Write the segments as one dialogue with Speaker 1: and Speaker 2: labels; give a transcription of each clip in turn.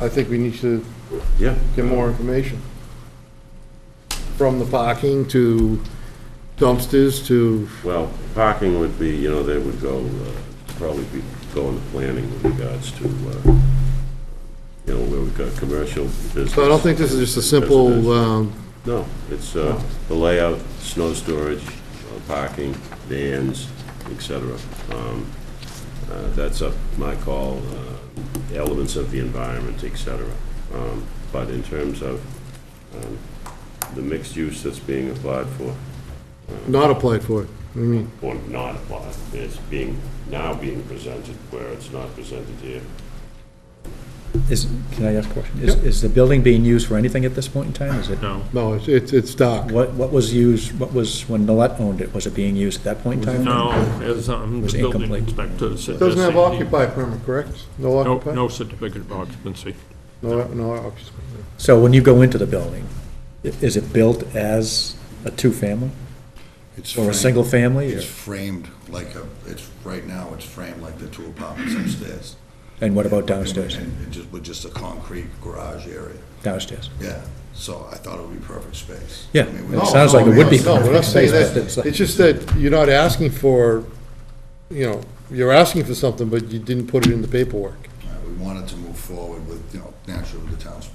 Speaker 1: I think we need to
Speaker 2: Yeah.
Speaker 1: get more information. From the parking to dumpsters to,
Speaker 2: Well, parking would be, you know, they would go, uh, probably be going to planning with regards to, uh, you know, where we've got commercial business.
Speaker 1: so I don't think this is just a
Speaker 2: Business.
Speaker 1: simple, Oh. um,
Speaker 2: No, it's uh, the layout, snow storage, uh, parking, vans, et cetera. Um, uh, That's up my call, uh, elements of the environment, et cetera. Um, But in terms of um, the mixed use that's being applied for,
Speaker 1: not applied for it. I mean,
Speaker 2: or not applied, it's being, now being presented where it's not presented here.
Speaker 3: Is, can I ask a question? Is, is the building being used for anything at this point in time? Is it?
Speaker 4: No,
Speaker 1: no, it's- it's, it's dark.
Speaker 3: What, what was used, what was, when Millet owned it, was it being used at that point in time?
Speaker 4: no, as um,
Speaker 3: Was
Speaker 4: the building
Speaker 3: incomplete.
Speaker 4: inspector said.
Speaker 1: Doesn't have
Speaker 4: that's the-
Speaker 1: occupy permit, correct? No
Speaker 4: E No,
Speaker 1: occupy?
Speaker 4: no certificate of occupancy.
Speaker 1: No, no occupy.
Speaker 3: So when you go into the building, i- is it built as a two-family?
Speaker 5: It's
Speaker 3: Or a
Speaker 5: framed-
Speaker 3: single family, or-
Speaker 5: It's framed like a, it's, right now, it's framed like the two apartments upstairs.
Speaker 3: And what about downstairs?
Speaker 5: And it just, with just a concrete garage area,
Speaker 3: Downstairs?
Speaker 5: yeah. So I thought it would be perfect space.
Speaker 3: Yeah,
Speaker 5: I mean,
Speaker 3: it
Speaker 5: we-
Speaker 3: sounds like it would be
Speaker 1: No, we're not
Speaker 3: perfect
Speaker 1: saying
Speaker 3: space, but
Speaker 1: that.
Speaker 3: it's
Speaker 1: It's
Speaker 3: like,
Speaker 1: just that you're not asking for, you know, you're asking for something, but you didn't put it in the paperwork.
Speaker 5: Uh, We wanted to move forward with, you know, naturally with the town's,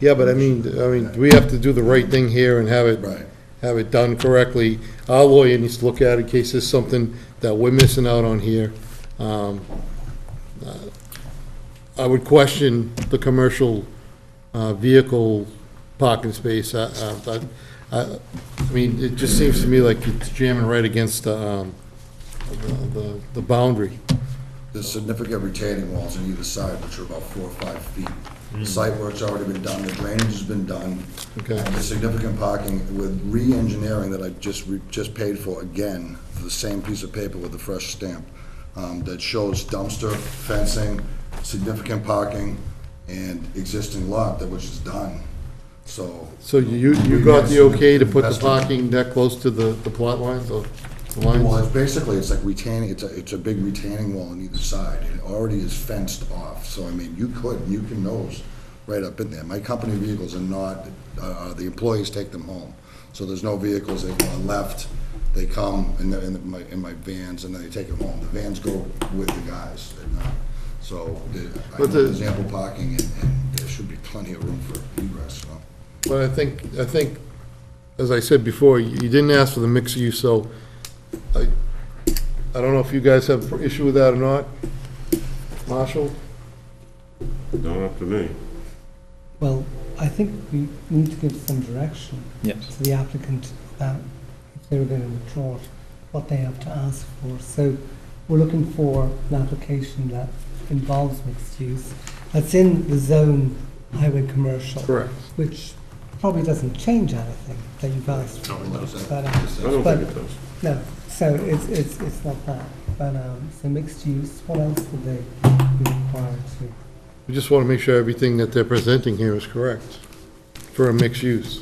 Speaker 1: Yeah, but I mean, I mean, we have to do the right thing here and have it,
Speaker 5: right,
Speaker 1: have it done correctly. Our lawyer needs to look at it in case there's something that we're missing out on here. Um, uh, I would question the commercial uh, vehicle parking space. I- I I- I mean, it just seems to me like it's jamming right against the, um, the- the- the boundary.
Speaker 5: There's significant retaining walls on either side, which are about four or five feet. The site work's already been done, the drainage has been done.
Speaker 1: Okay.
Speaker 5: And There's significant parking with re-engineering that I just, re- just paid for again, for the same piece of paper with the fresh stamp, um, that shows dumpster, fencing, significant parking, and existing lot that which is done, so.
Speaker 1: So you, you got the okay to put the parking that close to the, the plot lines or the
Speaker 5: Well,
Speaker 1: lines?
Speaker 5: it's basically, it's like retaining, it's a, it's a big retaining wall on either side, and it already is fenced off, so I mean, you could, you can nose right up in there. My company vehicles are not, uh, the employees take them home, so there's no vehicles that are left. They come in the, in the- my, in my vans, and then they take them home. The vans go with the guys at night, so the- I know
Speaker 1: But the-
Speaker 5: there's ample parking, and, and there should be plenty of room for egress, so.
Speaker 1: But I think, I think, as I said before, you you didn't ask for the mixed use, so I, I don't know if you guys have issue with that or not. Marshall?
Speaker 2: Not up to me.
Speaker 6: Well, I think we need to give some direction
Speaker 3: yes.
Speaker 6: to the applicant about if they were going to withdraw it, what they have to ask for. So we're looking for an application that involves mixed use, that's in the zone highway commercial.
Speaker 1: Correct.
Speaker 6: Which probably doesn't change anything that you've asked
Speaker 4: No,
Speaker 6: for.
Speaker 4: it doesn't.
Speaker 6: But, uh,
Speaker 2: I don't
Speaker 6: But-
Speaker 2: think it does.
Speaker 6: no, so it's, it's, it's not that. But, um, so mixed use, what else would they be required to?
Speaker 1: We just want to make sure everything that they're presenting here is correct for a mixed use.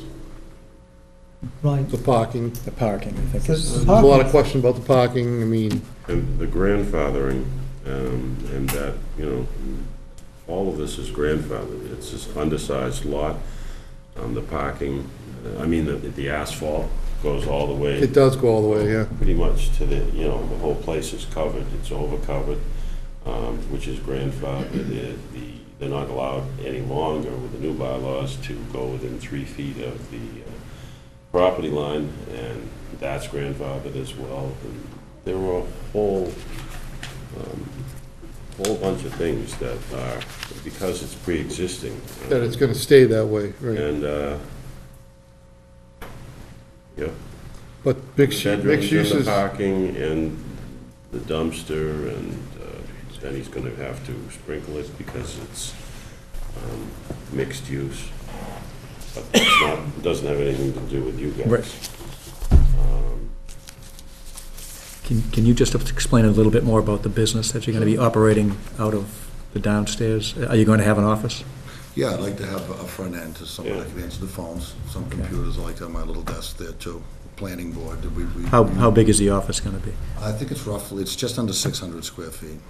Speaker 6: Right.
Speaker 1: The parking,
Speaker 3: The parking, I think
Speaker 6: So
Speaker 3: is,
Speaker 1: there's a lot of question about the parking, I mean,
Speaker 2: And the grandfathering, um, and that, you know, all of this is grandfathered. It's this undersized lot, um, the parking, uh, I mean, the, the asphalt goes all the way,
Speaker 1: it does go all the way, yeah.
Speaker 2: pretty much to the, you know, the whole place is covered, it's overcovered, um, which is grandfathered. It- the- They're not allowed any longer with the new bylaws to go within three feet of the uh, property line, and that's grandfathered as well. And There were a whole um, whole bunch of things that are, because it's pre-existing.
Speaker 1: That it's going to stay that way, right.
Speaker 2: And, uh, yeah.
Speaker 1: But mixed, mixed
Speaker 2: Bedrooms
Speaker 1: use
Speaker 2: and the
Speaker 1: is.
Speaker 2: parking and the dumpster and, uh, and he's gonna have to sprinkle it because it's, um, mixed use. But it's not, it doesn't have anything to do with you guys.
Speaker 3: Right. can, can you just explain a little bit more about the business that you're going to be operating out of the downstairs? Are you going to have an office?
Speaker 5: Yeah, I'd like to have a front end to someone that
Speaker 2: Yeah.
Speaker 5: can answer the phones, some computers, I like to have my little desk there too, planning board, did we? we-
Speaker 3: How, how big is the office going to be?
Speaker 5: I think it's roughly, it's just under six hundred square feet.